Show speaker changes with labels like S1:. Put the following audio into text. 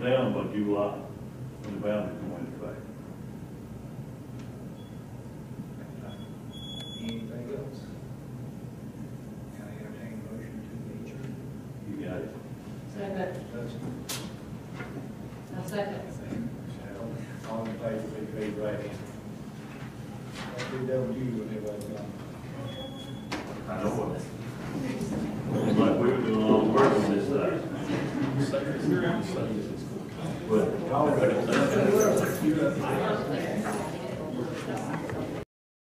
S1: down by July, when the boundary go into effect.
S2: Anything else? Can I entertain a motion to adjourn?
S1: You got it.
S3: Second,
S2: Motion.
S3: I second.
S2: Shall, All in favor, please raise your right hand. I'll do double you when everybody's gone.
S1: I know it. It's like we were doing all the work on this side. But
S2: All in favor?
S3: I